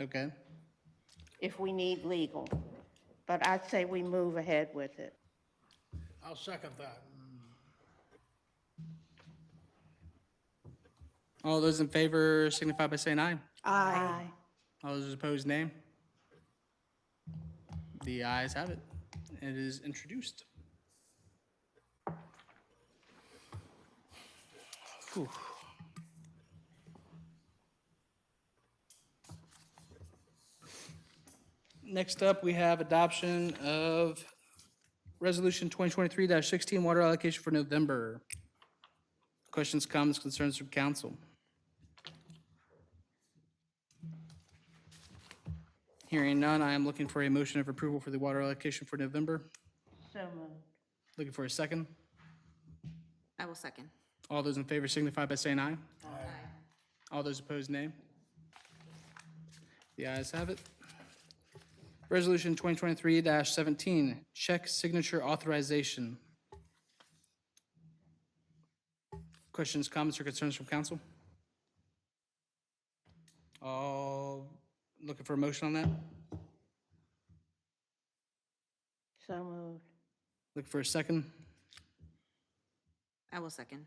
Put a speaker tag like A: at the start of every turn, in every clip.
A: Okay.
B: if we need legal. But I'd say we move ahead with it.
C: I'll second that.
A: All those in favor signify by saying aye.
D: Aye.
B: Aye.
A: All those opposed, nay. The ayes have it. It is introduced. Whew. Next up, we have adoption of Resolution 2023-16, water allocation for November. Questions, comments, concerns from council? Hearing none, I am looking for a motion of approval for the water allocation for November.
B: So moved.
A: Looking for a second.
D: I will second.
A: All those in favor signify by saying aye. Aye. All those opposed, nay. The ayes have it. Resolution 2023-17, check signature authorization. Questions, comments, or concerns from council? All looking for a motion on that?
B: So moved.
A: Looking for a second.
D: I will second.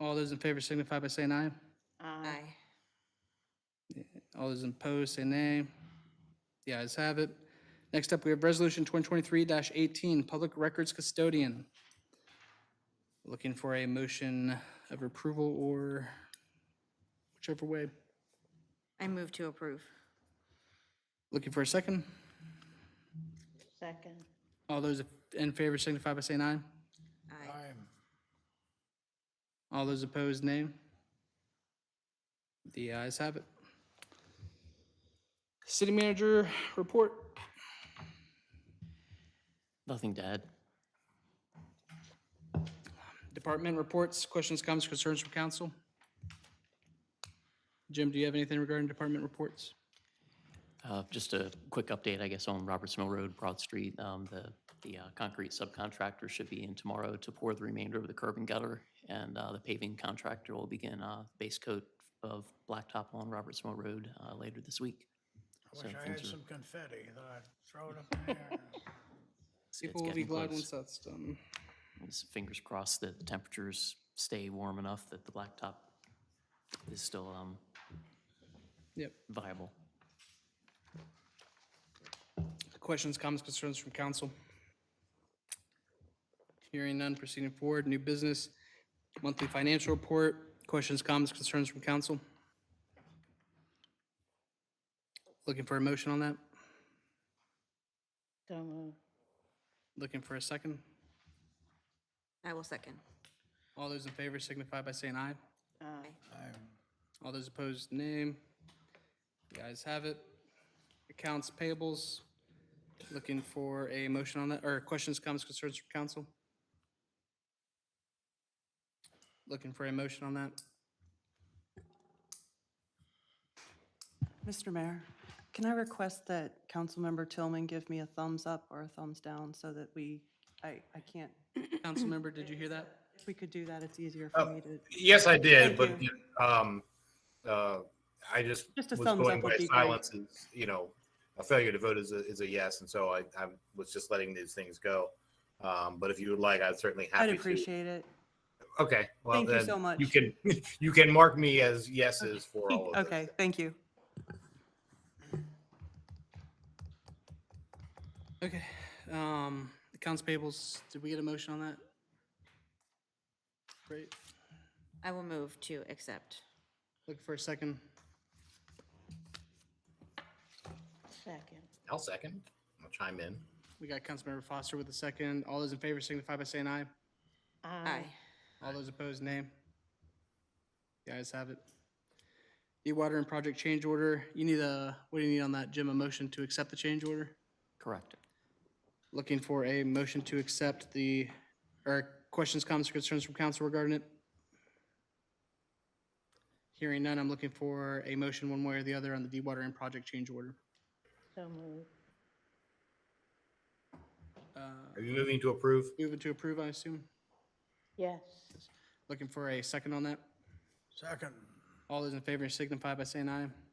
A: All those in favor signify by saying aye.
B: Aye.
D: Aye.
A: All those opposed, say nay. The ayes have it. Next up, we have Resolution 2023-18, Public Records Custodian. Looking for a motion of approval or whichever way.
D: I move to approve.
A: Looking for a second.
B: Second.
A: All those in favor signify by saying aye.
D: Aye.
C: I'm,
A: All those opposed, nay. The ayes have it. City Manager Report.
E: Nothing to add.
A: Department reports, questions, comments, concerns from council? Jim, do you have anything regarding department reports?
E: Uh, Just a quick update, I guess, on Roberts Mill Road, Broad Street. Um, The, the uh, concrete subcontractor should be in tomorrow to pour the remainder of the curb and gutter, and uh, the paving contractor will begin uh, base coat of blacktop on Roberts Mill Road uh, later this week.
C: I
E: So
C: wish I
E: things
C: had
E: are-
C: some confetti that I'd throw it up in the air.
A: People will be
E: getting
A: glad once
E: close.
A: that's done.
E: Just Fingers crossed that the temperatures stay warm enough that the blacktop is still um,
A: Yep.
E: viable.
A: Questions, comments, concerns from council? Hearing none, proceeding forward, new business, monthly financial report, questions, comments, concerns from council? Looking for a motion on that?
B: So moved.
A: Looking for a second?
D: I will second.
A: All those in favor signify by saying aye.
B: Aye.
C: I'm-
A: All those opposed, name. The ayes have it. Accounts payables, looking for a motion on that, or questions, comments, concerns from council? Looking for a motion on that.
F: Mr. Mayor, can I request that Councilmember Tillman give me a thumbs up or a thumbs down so that we, I, I can't,
A: Councilmember, did you hear that?
F: if we could do that, it's easier for me to,
G: Yes, I did, but
F: Thank
G: um, uh, I just
F: Just a
G: was
F: thumbs
G: going
F: up would
G: by
F: be great.
G: silence is, you know, a failure to vote is a, is a yes, and so I, I was just letting these things go. Um, but if you would like, I'd certainly happy
F: I'd
G: to.
F: appreciate it.
G: Okay, well
F: Thank you
G: then
F: so much.
G: You can you can mark me as yeses for all of
F: Okay, thank you.
A: Okay, um, accounts payables, did we get a motion on that? Great,
D: I will move to accept.
A: looking for a second.
B: Second.
G: this. I'll second. I'll chime in.
A: We got Councilmember Foster with a second. All those in favor signify by saying aye.
D: Aye.
A: All those opposed, nay. The ayes have it. The water and project change order, you need a, what do you need on that, Jim? A motion to accept the change order?
E: Correct.
A: Looking for a motion to accept the, or questions, comments, or concerns from council regarding it? Hearing none, I'm looking for a motion one way or the other on the dewatering project change order.
B: So moved.
G: Are you moving to approve?
A: Moving to approve, I assume?
B: Yes.
A: Looking for a second on that?
C: Second,
A: All those in favor signify by saying aye.